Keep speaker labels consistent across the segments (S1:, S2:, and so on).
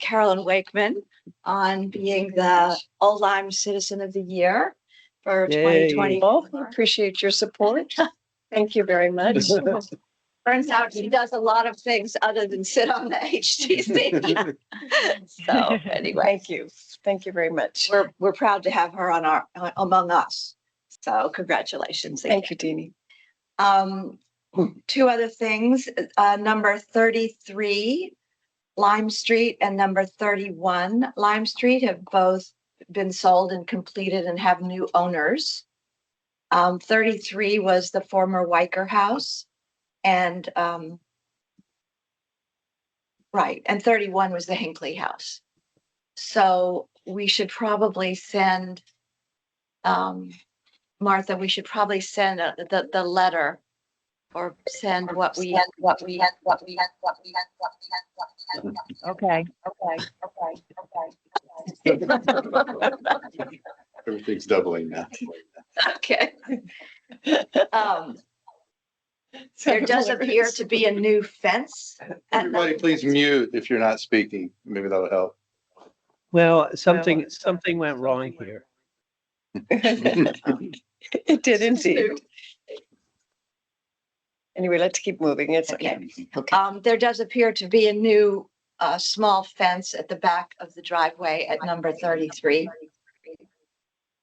S1: Carolyn Wakeman on being the Old Lyme Citizen of the Year for twenty
S2: Yay.
S1: twenty.
S3: Well, we appreciate your support. Thank you very much.
S1: Turns out she does a lot of things other than sit on the HTC. So anyway,
S3: Thank you. Thank you very much.
S1: we're, we're proud to have her on our, among us. So congratulations. again.
S3: Thank you, Deanie.
S1: Um, two other things, uh, number thirty-three Lime Street and number thirty-one Lime Street have both been sold and completed and have new owners. Um, thirty-three was the former Wiker House and, um, right, and thirty-one was the Hinckley House. So we should probably send, um, Martha, we should probably send a- the, the letter or send what we, what we, what we, what we, what we.
S4: Okay.
S1: Okay, okay, okay.
S5: Everything's doubling now.
S1: Okay. Um, There does appear to be a new fence. at the-
S5: Everybody, please mute if you're not speaking. Maybe that'll help.
S2: Well, something, something went wrong here.
S3: It did indeed. Anyway, let's keep moving. It's okay. Okay.
S1: Um, there does appear to be a new, uh, small fence at the back of the driveway at number thirty-three.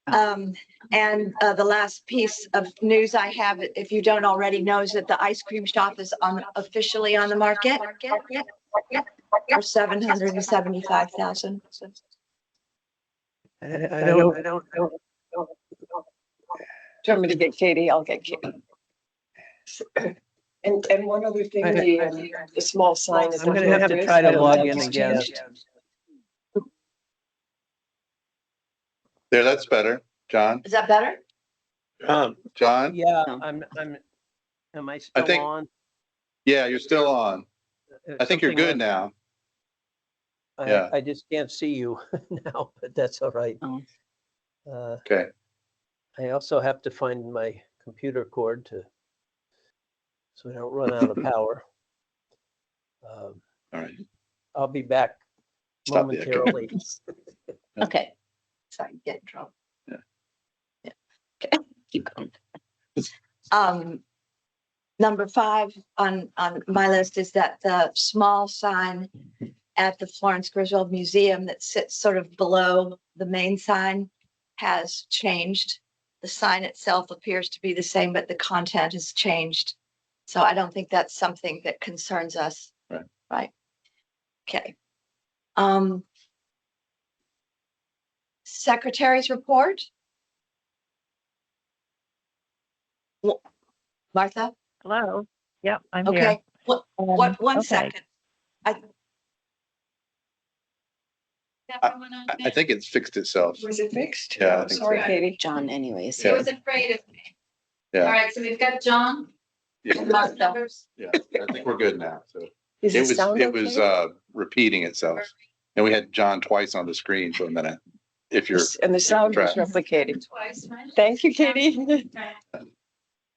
S1: Um, and, uh, the last piece of news I have, if you don't already know, is that the ice cream shop is on, officially on the market for seven hundred and seventy-five thousand.
S2: I, I don't,
S3: don't. Do you want me to get Katie? I'll get Katie. And, and one other thing,
S2: I-
S3: the, um, the small sign. is
S2: I'm gonna have to try to log in again.
S5: There, that's better. John,
S1: Is that better?
S5: John?
S2: Yeah, I'm, I'm, am I still
S5: think-
S2: on? Uh,
S5: Yeah, you're still on. I think you're good
S2: Something
S5: now.
S2: went-
S5: yeah.
S2: I, I just can't see you now, but that's all right.
S4: Oh.
S2: Uh,
S5: Okay.
S2: I also have to find my computer cord to, so I don't run out of power. Um,
S5: All right.
S2: I'll be back
S5: Stop the echo.
S2: momentarily.
S4: Okay.
S1: Sorry, get in trouble.
S5: Yeah.
S1: Yeah. Okay. Keep going. Um, number five on, on my list is that the small sign at the Florence Griswold Museum that sits sort of below the main sign has changed. The sign itself appears to be the same, but the content has changed. So I don't think that's something that concerns us.
S5: Right.
S1: Right? Okay. Um, Secretary's report? Wha- Martha?
S4: Hello. Yep, I'm here.
S1: Okay, what, what,
S4: Um,
S1: one
S4: okay.
S1: second. I.
S5: everyone I, I think it's fixed itself.
S3: Was it fixed?
S5: Yeah, I think so.
S3: Sorry, Katie.
S4: John anyways.
S5: Yeah.
S6: He was afraid of me.
S5: Yeah.
S6: All right, so we've got John.
S5: Yeah,
S1: Martha.
S5: yeah. I think we're good now. So
S3: Is
S5: it was,
S3: sound
S5: it was,
S3: okay?
S5: uh, repeating itself. And we had John twice on the screen for a minute. If you're,
S3: And the sound was
S5: track.
S3: replicated.
S6: Twice, right?
S3: Thank you, Katie.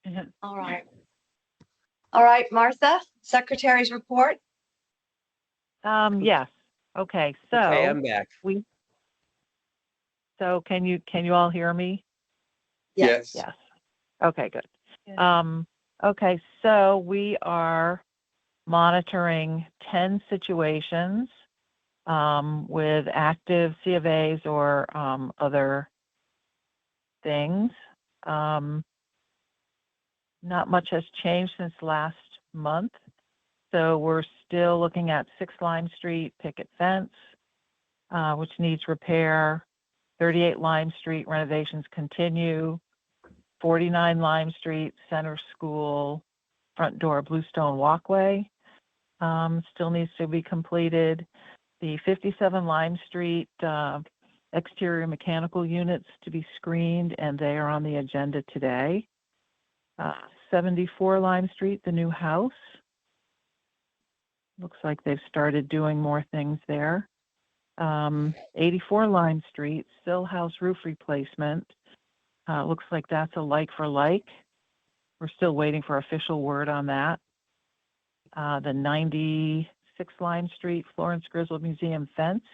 S6: Okay.
S1: All right. All right, Martha, Secretary's report?
S4: Um, yes. Okay,
S2: Okay,
S4: so,
S2: I'm back.
S4: so can you, can you all hear me?
S5: yes.
S4: Yes. Okay, good. Um, okay, so we are monitoring ten situations um, with active C of As or um, other things. Um, not much has changed since last month. So we're still looking at six Lime Street picket fence, uh, which needs repair. Thirty-eight Lime Street renovations continue. 49 Lime Street, Center School, front door Bluestone Walkway um, still needs to be completed. The 57 Lime Street uh, exterior mechanical units to be screened, and they are on the agenda today. Uh, 74 Lime Street, the new house. Looks like they've started doing more things there. Um, 84 Lime Street, still house roof replacement. Uh, looks like that's a like for like. We're still waiting for official word on that. Uh, the 90 Six Lime Street, Florence Griswold Museum fence.